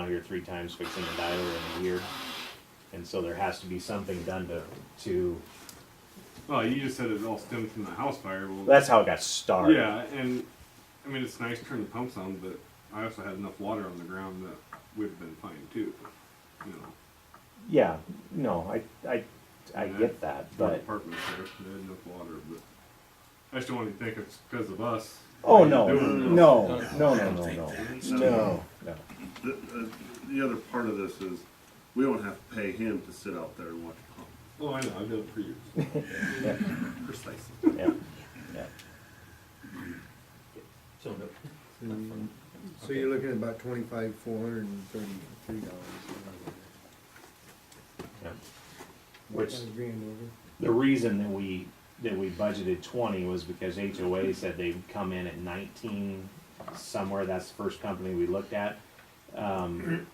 you're three times fixing a dial in a year. And so there has to be something done to, to, Well, you just said it all stemmed from the house fire. Well, that's how it got started. yeah, and I mean it's nice to turn the pumps on, but I also had enough water on the ground that would have been fine too. You know, Yeah, no, I, I, I get that, four but, apartments there, they had enough water, but I just don't want you to think it's because of us. oh, Like, no, doing it. no, no, no, no, no, No. no. The, uh, the other part of this is, we don't have to pay him to sit out there and watch pump. Oh, I know. I've done it for years. Precisely. Yeah, yeah. So, no. So you're looking at about twenty-five, four hundred and thirty-three dollars. yeah. Which, Five grand over. the reason that we, that we budgeted twenty was because HOA said they'd come in at nineteen somewhere, that's the first company we looked at. Um,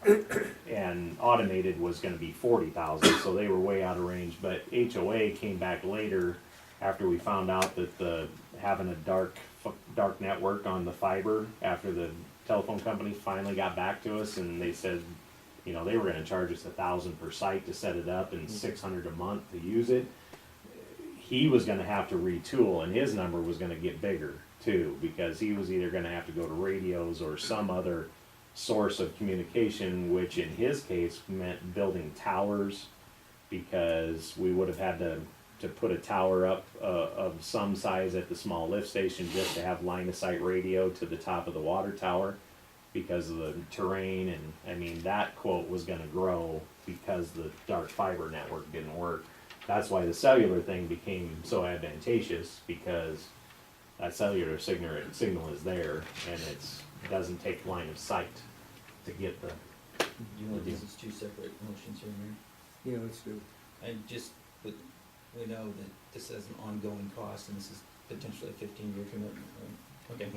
and automated was gonna be forty thousand, so they were way out of range, but HOA came back later after we found out that the, having a dark, f- dark network on the fiber, after the telephone company finally got back to us and they said, you know, they were gonna charge us a thousand per site to set it up and six hundred a month to use it. He was gonna have to retool and his number was gonna get bigger too, because he was either gonna have to go to radios or some other source of communication, which in his case meant building towers, because we would have had to, to put a tower up, uh, of some size at the small lift station just to have line of sight radio to the top of the water tower because of the terrain and I mean that quote was gonna grow because the dark fiber network didn't work. That's why the cellular thing became so advantageous because that cellular signal signal is there and it's doesn't take line of sight to get the You know, this is two separate motions here, Mayor. Yeah, let's do. And just, with we know that this is an ongoing cost, and this is potentially a fifteen-year commitment, right? Okay.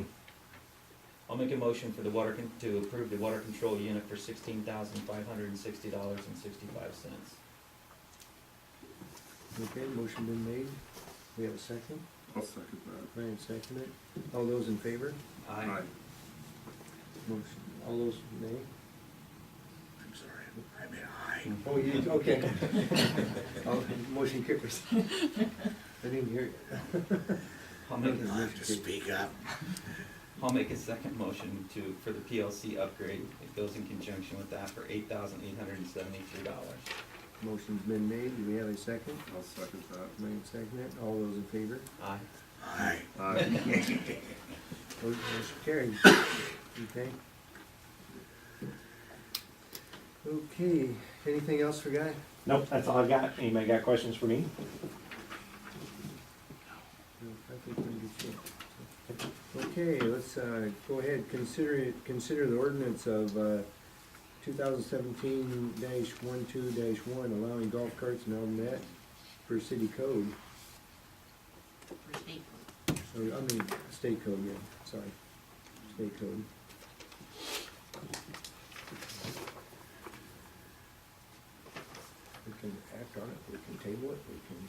I'll make a motion for the water, con- to approve the water control unit for sixteen thousand five hundred and sixty dollars and sixty-five cents. Okay, motion been made. We have a second. I'll second that. Ryan seconded it. All those in favor? Aye. Motion. All those nay? I'm sorry, I mean, aye. Oh, you, okay. All- Motion kickers. I didn't hear you. I'll make, Okay, motion kickers. up. I'll make a second motion to, for the PLC upgrade. It goes in conjunction with that for eight thousand eight hundred and seventy-three dollars. Motion's been made. Do we have a second? I'll second that. Ryan seconded it. All those in favor? Aye. Aye. Aye. Motion carried. Okay. Okay, anything else for Guy? Nope, that's all I got. Anybody got questions for me? No, I think we're in good shape. Okay, let's, uh, go ahead, consider it, consider the ordinance of, uh, two thousand seventeen dash one two dash one, allowing golf carts and all that per city code, or, I mean, state code, yeah, sorry, state code. We can act on it, we can table it, we can.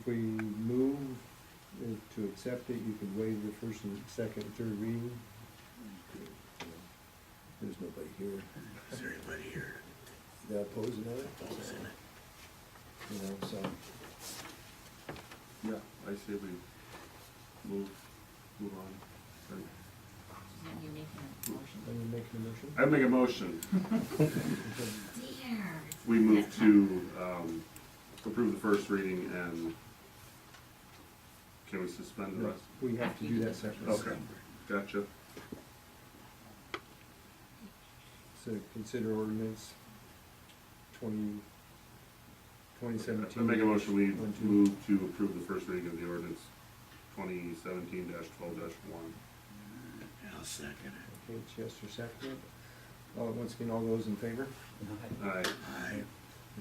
If we move uh, to accept it, you could waive the first and second and third reading. There's nobody here. Is there anybody here? They're opposing of it? You know, so, Yeah, I say we move, move on. You're making a let motion. me make a motion. I make a motion. Dear. We move to, um, approve the first reading and can we suspend the No, rest? We have to do that separately. Okay, gotcha. So consider ordinance twenty, twenty I seventeen. make a motion, we One, two. move to approve the first reading of the ordinance twenty seventeen twelve one. Okay, Chester seconded. All, once again, all those in favor? Aye. Aye.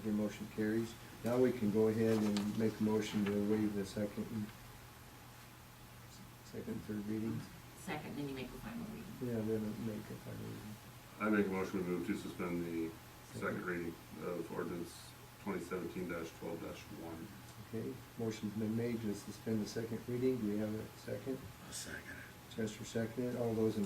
Your motion carries. Now we can go ahead and make a motion to waive the second, and second, third readings. Mm-hmm. Second, then you make the final reading. Yeah, then make a final reading. I make a motion, we move to suspend the second reading of ordinance twenty seventeen twelve one. Okay, motion's been made to suspend the second reading. Do we have a second? second. Chester seconded. All those in